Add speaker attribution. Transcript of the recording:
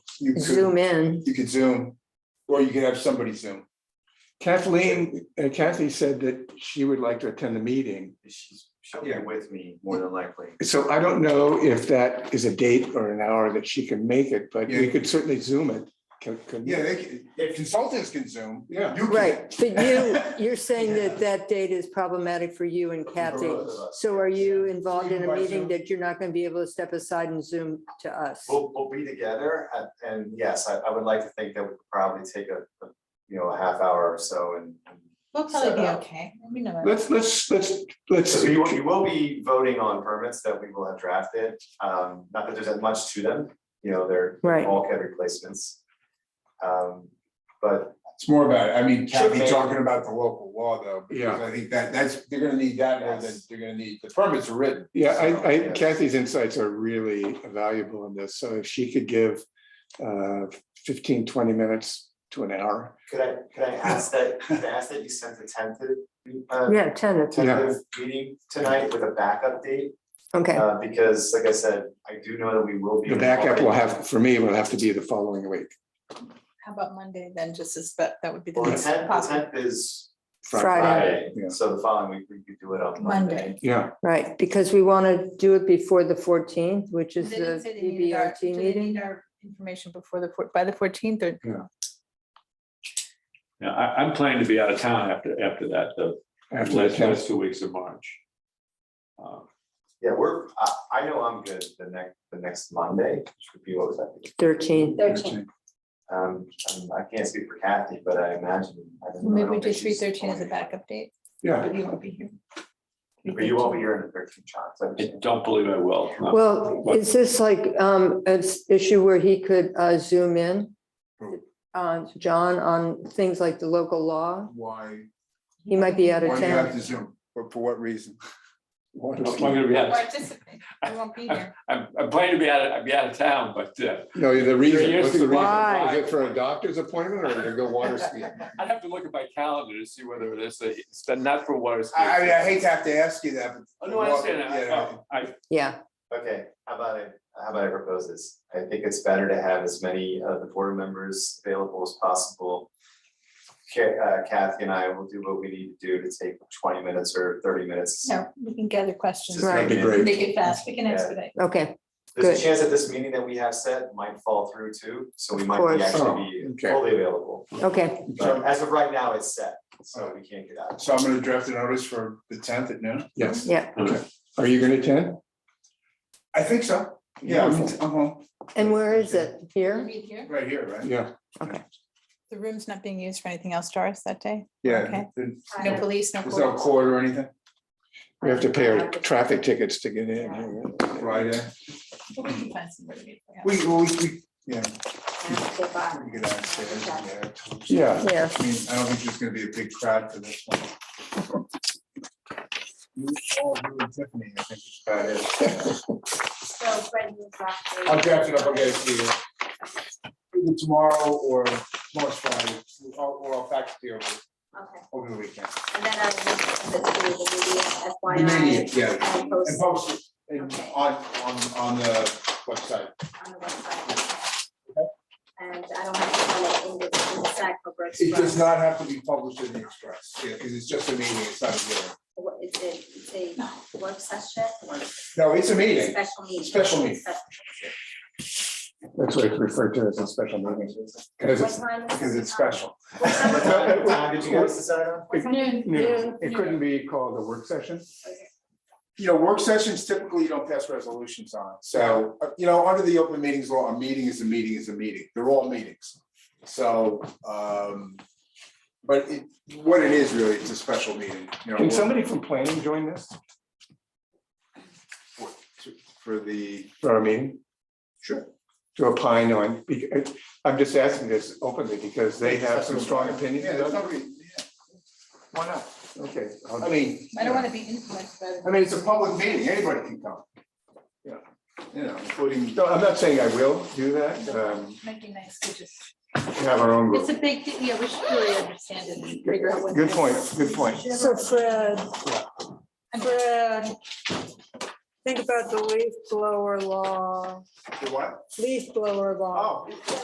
Speaker 1: you could,
Speaker 2: zoom in.
Speaker 1: you could Zoom, or you could have somebody Zoom.
Speaker 3: Kathleen, uh, Kathy said that she would like to attend the meeting.
Speaker 4: She's, she'll be
Speaker 1: Yeah.
Speaker 4: with me more than likely.
Speaker 3: So I don't know if that is a date or an hour that she can make it, but we
Speaker 1: Yeah.
Speaker 3: could certainly zoom it. Can- can-
Speaker 1: Yeah, they can- if consultants can Zoom.
Speaker 3: Yeah.
Speaker 1: you can.
Speaker 2: Right, but you, you're saying that that date is problematic for you and Kathy.
Speaker 1: both of us.
Speaker 2: So are you involved in a
Speaker 1: Zoom by
Speaker 2: meeting
Speaker 1: Zoom.
Speaker 2: that you're not gonna be able to step aside and Zoom to us?
Speaker 4: We'll, we'll be together and, and yes, I, I would like to think that we could probably take a, a, you know, a half hour or so and. and-
Speaker 5: We'll probably be
Speaker 4: Set up.
Speaker 5: okay. We know.
Speaker 3: Let's, let's, let's, let's,
Speaker 4: So you will, you will be voting on permits that we will have drafted. Um, not that there's that much to them, you know, they're
Speaker 2: Right.
Speaker 4: bulkhead replacements. Um, but
Speaker 1: It's more about, I mean,
Speaker 4: Sure,
Speaker 1: Kathy
Speaker 4: maybe.
Speaker 1: talking about the local law though, because
Speaker 3: Yeah.
Speaker 1: I think that, that's, they're gonna need that more than
Speaker 4: Yes.
Speaker 1: they're gonna need, the permits are written.
Speaker 3: yeah,
Speaker 1: so,
Speaker 3: I, I,
Speaker 4: yes.
Speaker 3: Kathy's insights are really valuable in this. So if she could give uh, 15, 20 minutes to an hour.
Speaker 4: could I, could I ask that, could I ask that you send the tentative? uh,
Speaker 2: Yeah, tentative,
Speaker 4: Tentative meeting tonight with a backup date,
Speaker 2: okay,
Speaker 4: uh, because like I said, I do know that we will be.
Speaker 3: The backup will
Speaker 4: involved.
Speaker 3: have, for me, will have to be the following week.
Speaker 5: How about Monday then, just as, but that would be the
Speaker 4: Well, the
Speaker 5: next
Speaker 4: tenth, the
Speaker 5: possible.
Speaker 4: tenth is
Speaker 2: Friday.
Speaker 4: Friday,
Speaker 3: Yeah.
Speaker 4: so the following week, we could do it on
Speaker 5: Monday.
Speaker 4: Monday.
Speaker 3: Yeah,
Speaker 2: right, because we wanna do it before the fourteenth, which is
Speaker 5: They didn't
Speaker 2: the
Speaker 5: say they needed our- do
Speaker 2: DBRT
Speaker 5: they need
Speaker 2: meeting.
Speaker 5: our Information before the, four- by the fourteenth or?
Speaker 3: Yeah.
Speaker 6: Yeah, I, I'm planning to be out of town after, after that, the
Speaker 3: after the
Speaker 6: last,
Speaker 3: test.
Speaker 6: last two weeks of March. Uh,
Speaker 4: Yeah, we're, I, I know I'm good the next, the next Monday, which would be what was that? be?
Speaker 2: Thirteenth,
Speaker 4: Um, um, I can't speak for Kathy, but I imagine. I don't know, I
Speaker 5: Maybe
Speaker 4: don't
Speaker 5: we do
Speaker 4: think
Speaker 5: three
Speaker 4: she's
Speaker 5: thirteen as a
Speaker 4: going
Speaker 5: backup date,
Speaker 3: Yeah,
Speaker 5: but you won't be here.
Speaker 4: anywhere. But you won't be here in the thirteen shots.
Speaker 6: I don't believe I will.
Speaker 1: Uh,
Speaker 6: no.
Speaker 2: well, is this like, um, an issue where he could, uh, zoom in? Uh, John, on things like the local law,
Speaker 1: Why,
Speaker 2: he might be out
Speaker 1: why
Speaker 2: of
Speaker 1: do you have
Speaker 2: town.
Speaker 1: to Zoom? For, for what reason?
Speaker 3: Water
Speaker 6: I'm
Speaker 3: ski.
Speaker 6: gonna be out,
Speaker 5: Participate. You won't be here.
Speaker 6: I'm, I'm planning to be out, of- I'll be out of town, but, uh,
Speaker 3: No, the reason,
Speaker 6: years
Speaker 3: what's the
Speaker 6: to
Speaker 3: reason?
Speaker 2: Why?
Speaker 3: Is it for a doctor's appointment or to go water skiing?
Speaker 6: I'd have to look at my calendar to see whether it is, a- it's not for water skiing.
Speaker 1: I, I mean, I hate to have to ask you that,
Speaker 6: Oh,
Speaker 1: but.
Speaker 6: no, I understand that. I-
Speaker 1: Yeah.
Speaker 6: I,
Speaker 2: Yeah,
Speaker 4: Okay, how about I, how about I propose this? I think it's better to have as many of the board members available as possible. Ca- uh, Kathy and I will do what we need to do to take twenty minutes or thirty minutes.
Speaker 5: No, we can gather questions.
Speaker 4: Just
Speaker 2: Right.
Speaker 4: make
Speaker 3: That'd be
Speaker 4: it-
Speaker 3: great.
Speaker 5: Make it fast. We can
Speaker 4: Yeah.
Speaker 5: expedite.
Speaker 2: okay,
Speaker 4: There's
Speaker 2: Good.
Speaker 4: a chance that this meeting that we have set might fall through too, so we
Speaker 2: Of
Speaker 4: might
Speaker 2: course.
Speaker 4: be actually
Speaker 3: Oh,
Speaker 4: be
Speaker 3: okay.
Speaker 4: fully available.
Speaker 2: okay.
Speaker 4: But as of right now, it's set, so we can't get out.
Speaker 1: So I'm gonna draft a notice for the tenth at noon.
Speaker 3: Yes.
Speaker 2: Yeah.
Speaker 3: Okay. Are you gonna attend?
Speaker 1: I think so. Yeah, I'm, I'm home,
Speaker 2: And where is it?
Speaker 5: We'll
Speaker 2: Here?
Speaker 5: be here.
Speaker 1: right here, right?
Speaker 3: Yeah,
Speaker 5: The room's not being used for anything else, Doris, that day? Okay.
Speaker 1: There's
Speaker 5: No police, no.
Speaker 1: no
Speaker 5: police.
Speaker 1: court or anything,
Speaker 3: we have to pay our traffic tickets to get in.
Speaker 1: Friday.
Speaker 5: But we can find somewhere to meet, yeah.
Speaker 1: We, we, we, yeah.
Speaker 7: Bye.
Speaker 1: We could downstairs, yeah.
Speaker 3: Yeah,
Speaker 2: Yeah,
Speaker 1: I mean, I don't think there's gonna be a big crowd for this one. You all do it, Tiffany, I think it's about it.
Speaker 7: So Brendan's last day.
Speaker 1: I'll draft it up, I'll get it to you. Either tomorrow or tomorrow's Friday, or or I'll fax it to you over,
Speaker 7: Okay,
Speaker 1: over the weekend.
Speaker 7: and then I will send it to the
Speaker 1: You may
Speaker 7: media, FYI.
Speaker 1: need- Yeah,
Speaker 7: And
Speaker 1: and
Speaker 7: post
Speaker 1: post it and
Speaker 7: Okay.
Speaker 1: on, on, on the website.
Speaker 7: on the website. And I don't have to fill it in the, in the sack for Brooks.
Speaker 1: It does not have to be published in the Express, yeah, because it's just a meeting, it's not a hearing.
Speaker 7: What, it's a, it's a work session or
Speaker 1: No, it's a meeting.
Speaker 7: special meeting?
Speaker 1: Special meeting.
Speaker 3: that's what it's referred to as a special meeting.
Speaker 1: Because
Speaker 7: What
Speaker 1: it's,
Speaker 7: time is?
Speaker 1: because it's special.
Speaker 7: What time is it?
Speaker 4: What Time did you guys decide on?
Speaker 7: What time is it?
Speaker 3: No, It couldn't be called a work session.
Speaker 1: You know, work sessions typically you don't pass resolutions on, so, uh, you know, under the open meetings law, a meeting is a meeting is a meeting, they're all meetings. So, um, but it, what it is really, it's a special meeting, you know.
Speaker 3: Can somebody from planning join this
Speaker 1: for- to- For the,
Speaker 3: for our meeting
Speaker 1: sure,
Speaker 3: to opine on? Because- I'm just asking this openly because they have some strong opinions.
Speaker 1: yeah, there's nobody, yeah, why not?
Speaker 3: Okay,
Speaker 1: I
Speaker 3: I'll-
Speaker 1: mean.
Speaker 5: I don't want to be influenced by the.
Speaker 1: I mean, it's a public meeting, anybody can come. Yeah, you know, including.
Speaker 3: no, I'm not saying I will do that. um,
Speaker 5: Might be nice to just.
Speaker 3: Have our own
Speaker 5: It's
Speaker 3: rules.
Speaker 5: a big, deal. yeah, we should really understand it and figure out what.
Speaker 3: Good point, good point.
Speaker 2: so Fred, Fred, think about the leaf blower law,
Speaker 1: The what?
Speaker 2: leaf blower law.
Speaker 1: Oh.